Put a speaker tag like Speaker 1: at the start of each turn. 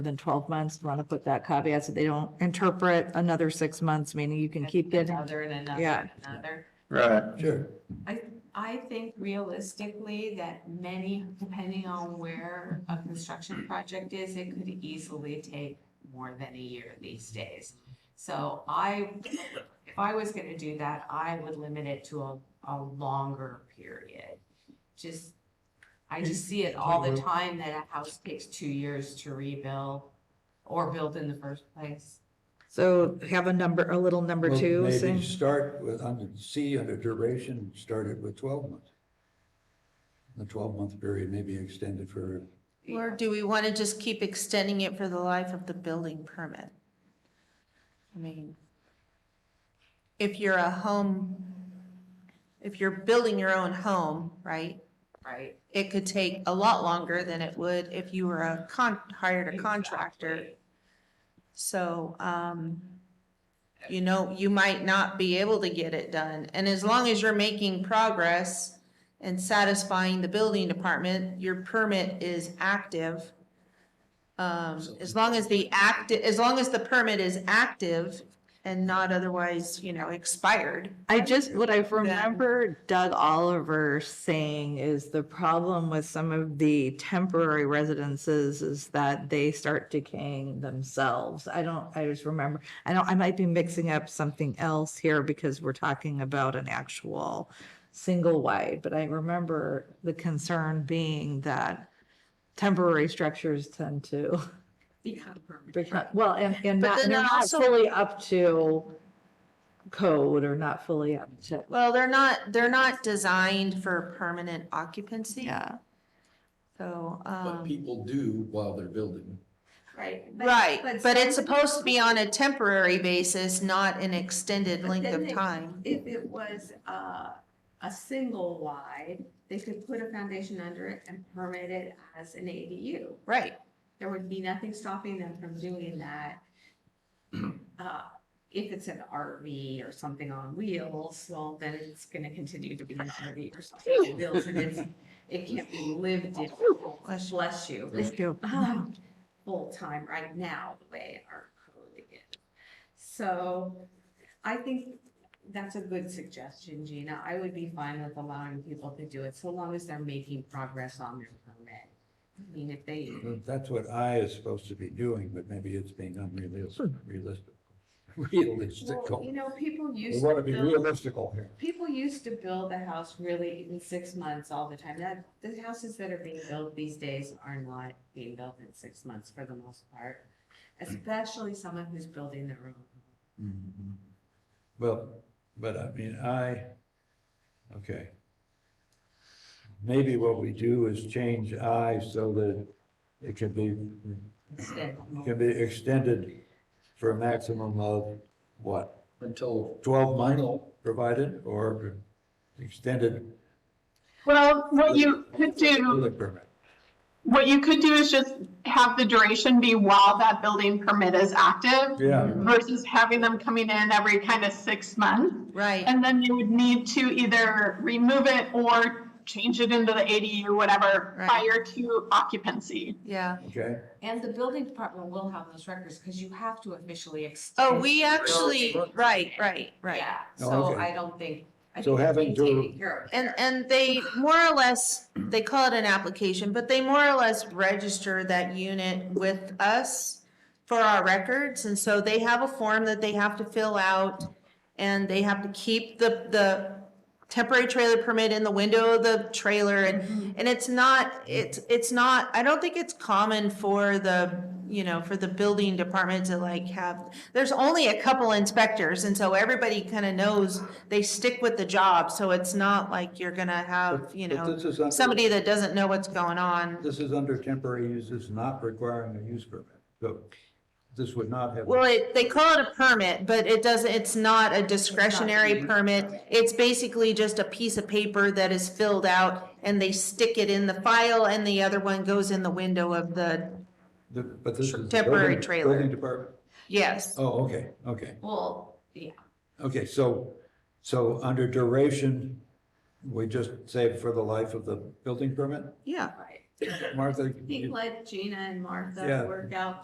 Speaker 1: within twelve months, want to put that caveat so they don't interpret another six months, meaning you can keep getting.
Speaker 2: Another and another
Speaker 1: Yeah.
Speaker 2: and another.
Speaker 3: Right.
Speaker 4: Sure.
Speaker 2: I think realistically that many, depending on where a construction project is, it could easily take more than a year these days. So I, if I was gonna do that, I would limit it to a, a longer period. Just, I just see it all the time that a house takes two years to rebuild or build in the first place.
Speaker 1: So have a number, a little number
Speaker 4: Well,
Speaker 1: two,
Speaker 4: Maybe
Speaker 1: saying,
Speaker 4: start with, under C, under duration, start it with twelve months. The twelve-month period may be extended for,
Speaker 5: Or do we want to just keep extending it for the life of the building permit? I mean, if you're a home, if you're building your own home, right?
Speaker 2: Right?
Speaker 5: It could take a lot longer than it would if you were a con, hired a contractor.
Speaker 2: Exactly.
Speaker 5: So, um, you know, you might not be able to get it done. And as long as you're making progress and satisfying the building department, your permit is active. Um, as long as the act, as long as the permit is active and not otherwise, you know, expired.
Speaker 1: I just, what I remember Doug Oliver saying is the problem with some of the temporary residences is that they start decaying themselves. I don't, I just remember, I don't, I might be mixing up something else here because we're talking about an actual single wide, but I remember the concern being that temporary structures tend to
Speaker 2: Become permanent.
Speaker 1: become, well, and, and
Speaker 5: But
Speaker 1: not,
Speaker 5: then
Speaker 1: they're
Speaker 5: that
Speaker 1: not
Speaker 5: also-
Speaker 1: fully up to code or not fully up to,
Speaker 5: Well, they're not, they're not designed for permanent occupancy.
Speaker 1: yeah.
Speaker 5: So,
Speaker 6: But
Speaker 5: um,
Speaker 6: people do while they're building.
Speaker 2: Right.
Speaker 5: right, but it's
Speaker 2: some-
Speaker 5: supposed to be on a temporary basis, not an extended
Speaker 2: But
Speaker 5: length
Speaker 2: then
Speaker 5: of
Speaker 2: they-
Speaker 5: time.
Speaker 2: If it was a, a single wide, they could put a foundation under it and permit it as an ADU.
Speaker 5: Right,
Speaker 2: There would be nothing stopping them from doing that. Uh, If it's an RV or something on wheels, well, then it's gonna continue to be an RV or something on wheels and it's, it can't be lived in. Bless you.
Speaker 1: Thank you.
Speaker 2: um, full time right now, the way our code is. So I think that's a good suggestion, Gina. I would be fine with allowing people to do it so long as they're making progress on their permit. I mean, if they,
Speaker 4: that's what I is supposed to be doing, but maybe it's being unrealistic, realistic. Realistical.
Speaker 2: well, you know, people
Speaker 4: We
Speaker 2: used
Speaker 4: want
Speaker 2: to
Speaker 4: to be
Speaker 2: build,
Speaker 4: realistical here.
Speaker 2: people used to build a house really in six months all the time. That, the houses that are being built these days are not being built in six months for the most part. Especially someone who's building their own home.
Speaker 6: Mm-hmm.
Speaker 4: Well, but I mean, I, okay. Maybe what we do is change I so that it can be
Speaker 2: instead.
Speaker 4: can be extended for a maximum of what,
Speaker 6: Until
Speaker 4: twelve months provided or extended
Speaker 7: Well, what you could do,
Speaker 4: building permit?
Speaker 7: what you could do is just have the duration be while that building permit is active
Speaker 4: Yeah,
Speaker 7: versus having them coming in every kind of six months.
Speaker 5: right.
Speaker 7: And then you would need to either remove it or change it into the ADU, whatever,
Speaker 5: Right.
Speaker 7: prior to occupancy.
Speaker 5: Yeah.
Speaker 4: okay.
Speaker 2: And the building department will have those records because you have to officially extend.
Speaker 5: Oh, we actually,
Speaker 2: building.
Speaker 5: right, right, right.
Speaker 2: Yeah,
Speaker 4: Oh,
Speaker 2: so
Speaker 4: okay.
Speaker 2: I don't think. I
Speaker 4: So
Speaker 2: think that's
Speaker 4: having
Speaker 2: being
Speaker 4: to-
Speaker 2: taken care of
Speaker 5: And,
Speaker 2: here.
Speaker 5: and they more or less, they call it an application, but they more or less register that unit with us for our records, and so they have a form that they have to fill out, and they have to keep the, the temporary trailer permit in the window of the trailer, and, and it's not, it's, it's not, I don't think it's common for the, you know, for the building department to like have, there's only a couple inspectors, and so everybody kind of knows they stick with the job, so it's not like you're gonna have, you
Speaker 4: But
Speaker 5: know,
Speaker 4: this is under-
Speaker 5: somebody that doesn't know what's going on.
Speaker 4: This is under temporary uses, not requiring a use permit, so this would not have.
Speaker 5: Well, it, they call it a permit, but it doesn't, it's not a discretionary
Speaker 2: used.
Speaker 5: permit. It's basically just a piece of paper that is filled out and they stick it in the file and the other one goes in the window of the,
Speaker 4: The- But this is.
Speaker 5: Temporary
Speaker 4: building-
Speaker 5: trailer.
Speaker 4: Building department,
Speaker 5: yes.
Speaker 4: oh, okay, okay,
Speaker 2: Well, yeah,
Speaker 4: okay, so, so under duration, we just say for the life of the building permit?
Speaker 5: Yeah.
Speaker 2: right.
Speaker 4: Martha?
Speaker 2: I think
Speaker 4: you-
Speaker 2: let Gina and Martha
Speaker 4: Yeah.
Speaker 2: work out